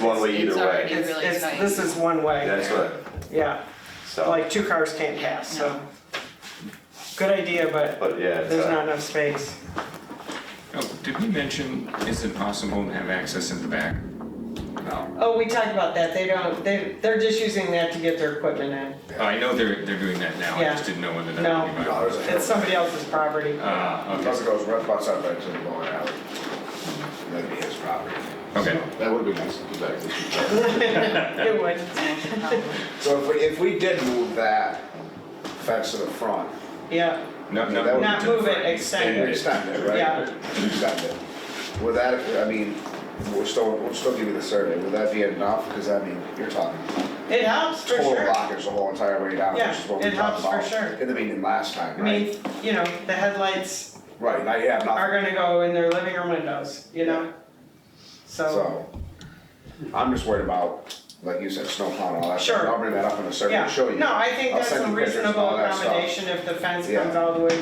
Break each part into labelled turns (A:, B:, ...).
A: One way
B: It's
A: either
B: already-
A: way.
B: It's really
C: It's,
B: tight.
C: it's, this is one way,
A: That's what,
C: yeah,
A: so,
C: like two cars can't pass, so.
B: No.
C: Good idea, but
A: but yeah, it's,
C: there's not
A: uh,
C: enough space.
D: Oh, did we mention, is it possible to have access in the back? No.
C: Oh, we talked about that, they don't, they, they're just using that to get their equipment
D: Oh, I know they're, they're doing that now, I just
C: Yeah.
D: didn't know whether
C: No.
D: that would be
E: No,
D: viable.
E: it's
C: in. It's somebody else's property.
D: Uh,
E: Plus it goes right outside back to the bowling alley. That'd be his property.
D: okay, okay.
E: That would be nice to do back this week.
C: It would,
E: So if we, if we did move that fence to the front,
C: yeah,
D: No,
E: That
D: no.
E: would-
C: not move it, extend it.
E: extend it, right?
C: Yeah.
E: Extend it. Would that, I mean, we'll still, we'll still give you the survey, would that be enough? Cause I mean, you're talking
C: It helps for
E: total
C: sure.
E: blockage the whole entire way down, which is what
C: Yeah,
E: we
C: it
E: talked
C: helps for
E: about.
C: sure.
E: In the meeting last time,
C: I
E: right?
C: mean, you know, the headlights
E: Right, now you have
C: are
E: nothing,
C: gonna go in their living room windows, you know? So,
E: so. I'm just worried about, like you said, snow plowing and all that. stuff.
C: Sure.
E: I'll bring that up in a survey
C: yeah,
E: and show you.
C: no, I think
E: I'll
C: that's
E: send
C: a
E: you pictures and
C: reasonable
E: all that stuff.
C: accommodation if the fence
E: Yeah.
C: comes all the way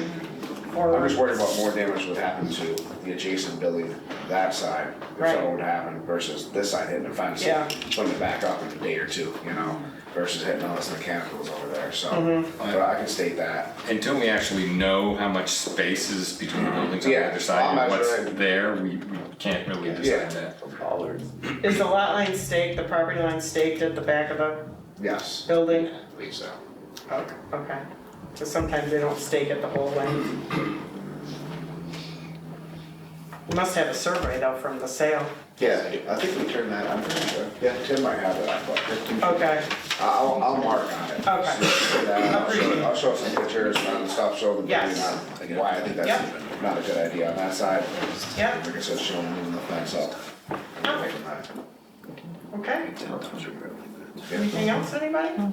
C: forward.
E: I'm just worried about more damage would happen to the adjacent building, that side, if
C: Right.
E: something would happen versus this side hitting the fence. and
C: Yeah.
E: Putting it back up in a day or two, you know, versus hitting all this mechanicals over there, so,
C: Mm-hmm.
E: but I can state that.
D: Until we actually know how much space is between the buildings on
E: Yeah,
D: the other side
E: I'll
D: and what's
E: measure it.
D: there, we, we can't really
E: Yeah.
D: decide that.
C: Is the lot line staked, the property line staked at the back of the
E: Yes,
C: building?
E: I believe so.
C: Oh, Okay, because sometimes they don't stake at the whole length. You Must have a survey though from the sale.
E: Yeah, I think we turned that, I'm pretty sure, yeah, Tim might have it, I thought.
C: Okay,
E: I'll, I'll mark on it.
C: okay,
E: Yeah, I'll
C: Appreciate it.
E: show, I'll show some pictures and stuff, show the building
C: Yes.
E: on, why I think that's not a good idea on that side.
C: Yep.
E: Like I said, showing moving the fence up.
C: okay.
E: Yeah.
C: Anything else, anybody? Do you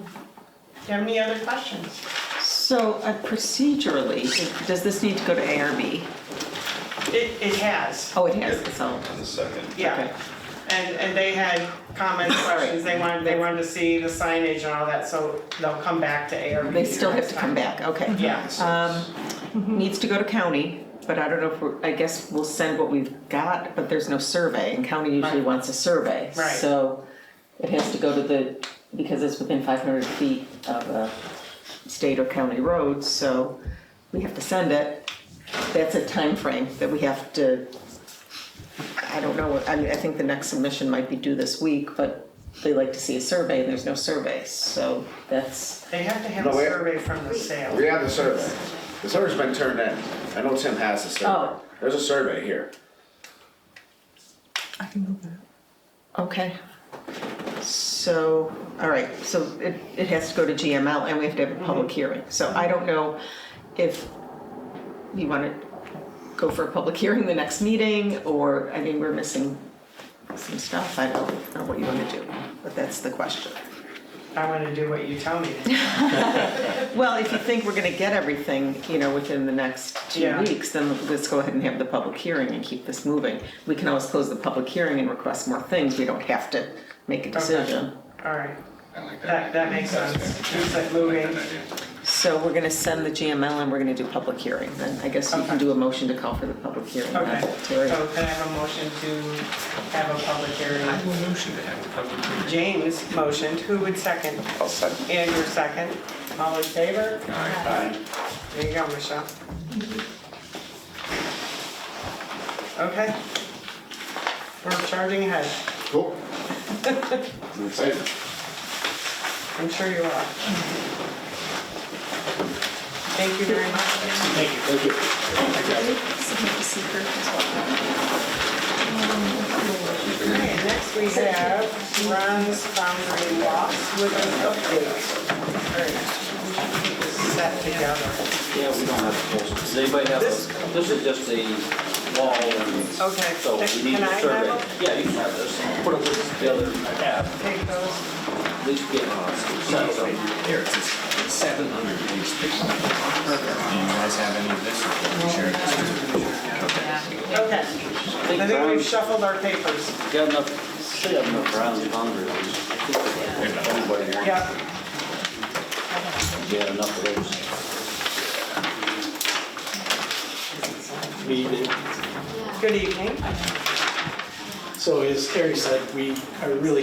C: have any other questions?
F: So uh, procedurally, does this need to go to ARB?
C: It, it has,
F: Oh, it has, so,
A: the second.
F: Okay.
C: yeah. And, and they had comments, questions, they wanted, they wanted to see the signage and all that, so they'll come back to ARB.
F: they still have to come back, okay.
C: Yeah,
F: Um, Needs to go to county, but I don't know if, we're I guess we'll send what we've got, but there's no survey, and county usually
C: Right.
F: wants a survey.
C: Right.
F: So it has to go to the, because it's within 500 feet of a state or county road, so we have to send it. That's a time frame that we have to, I don't know, I mean, I think the next submission might be due this week, but they like to see a survey, and there's no survey, so that's,
C: they have to have a
E: No, we-
C: survey from the sale.
E: We have the survey. The survey's been turned in. I know Tim has the survey.
F: Oh.
E: There's a survey here.
F: okay. So, all right, so it, it has to go to GML, and we have to have a public hearing. So I don't know if you want to go for a public hearing the next meeting, or, I mean, we're missing some stuff, I don't know what you want to do, but that's the question.
C: I wanna do what you tell me.
F: Well, if you think we're gonna get everything, you know, within the next two
C: Yeah.
F: weeks, then let's go ahead and have the public hearing and keep this moving. We can always close the public hearing and request more things, we don't have to make a decision.
C: All right,
D: I like
C: that,
D: that.
C: that makes
D: That's
C: sense.
D: fair.
C: Keeps it
D: I like
C: moving.
D: that idea.
F: So we're gonna send the GML and we're gonna do public hearing, then I guess you
C: Okay.
F: can do a motion to call for the public hearing.
C: Okay,
F: Terry.
C: so can I have a motion to have a public
D: I
C: hearing?
D: will motion to have the public hearing.
C: James motioned, who would second?
A: I'll second.
C: Andrew second, all in favor?
D: Aye.
C: There you go, Michelle. Okay. We're charging ahead,
E: Cool. I'm excited.
C: I'm sure you are. Thank you very much.
E: Thank you.
C: Okay, next we have Ron's boundary loss with an update. Set together.
G: Yeah, we don't have proposals. Does anybody have a,
C: This-
G: this is just a wall and
C: Okay.
G: so we need
C: Can I
G: a
C: have
G: survey.
C: them?
G: Yeah, you can have this. Put a list together, have,
C: Take those.
G: at least get a sense of
D: Here, it's seven hundred page picture. Do you guys have any of this? or can we share this? Okay.
C: Okay, I think we've shuffled our papers.
G: Got enough, should have enough rounds of boundaries. Everybody wants.
C: Yeah,
G: Yeah, enough of those. Me,
C: good evening.
A: So as Terry said, we are really